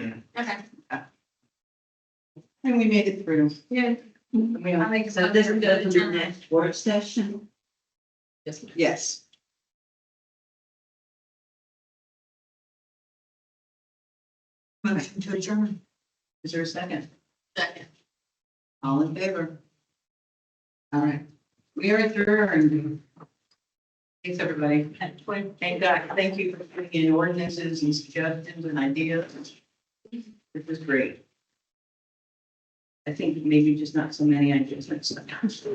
Okay. And we made it through. Yeah. We are- make So this is good to the next work session. Yes. Yes. Motion to adjourn. Is there a second? Second. All in favor? All right. We are adjourned. Thanks, everybody. Thank God. Thank you for bringing in ordinances and suggestions and ideas. This was great. I think maybe just not so many ideas. but sometimes.